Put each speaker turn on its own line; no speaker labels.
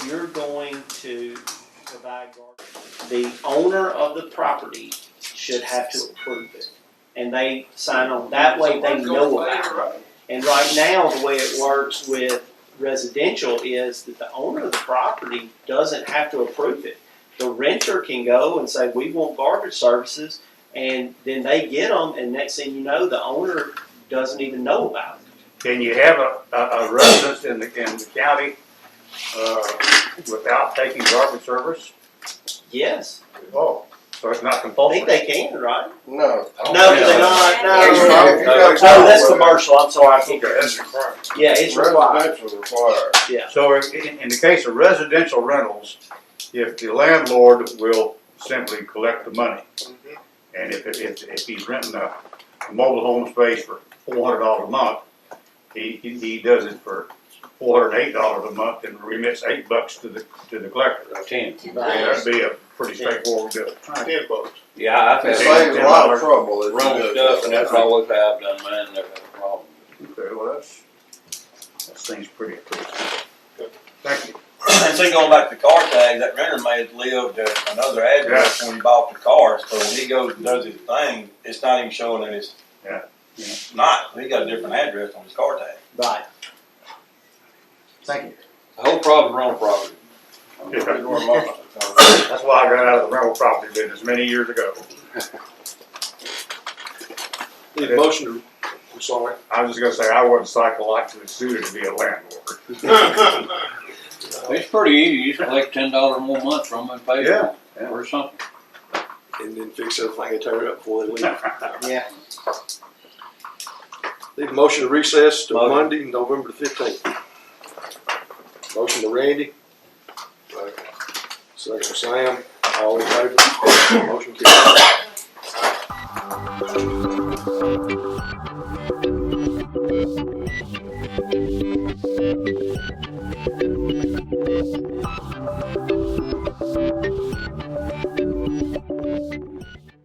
you're going to provide guard. The owner of the property should have to approve it. And they sign on, that way they know about it. And right now, the way it works with residential is that the owner of the property doesn't have to approve it. The renter can go and say, we want garbage services, and then they get them, and next thing you know, the owner doesn't even know about it.
Can you have a, a, a residence in the, in the county, uh, without taking garbage service?
Yes,
Oh. So it's not
I think
compulsory?
they can, right?
No.
No, they're not, no, no, no.
If you got a
Oh, that's
job,
commercial, I'm sorry, I can't.
required.
Yeah, it's required,
Residential required.
So in, in the case of residential rentals, if the landlord will simply collect the money, and if, if, if he's renting a mobile home space for four hundred dollars a month, he, he, he does it for four hundred and eight dollars a month and remits eight bucks to the, to the collector. Ten. That'd be a pretty straightforward bill.
Ten bucks.
Yeah, I've
It
had
saves a
some
lot of trouble if
wrong
you do
stuff, and
it.
that's always how I've done mine, never had a problem.
Okay, well, that's, that seems pretty, pretty. Thank you.
And see, going back to car tags, that renter may have lived at another address
Yeah.
when he bought the car, so when he goes and does his thing, it's not even showing that it's
Yeah. Yeah.
not, he got a different address on his car tag.
right.
Thank you.
The whole problem's wrong property.
Yeah.
Or most of the time.
That's why I got out of the rental property business many years ago.
Need a motion to, I'm sorry.
I was just gonna say, I wasn't psychologically suited to be a landlord.
It's pretty easy, you just collect ten dollars one month from them and pay them,
Yeah, yeah.
or something.
and then fix everything and tear it up before they leave.
Yeah.
Need a motion to recess to
Motion.
Monday, November the fifteenth. Motion to Randy. Second to Sam, all in favor? Motion carries.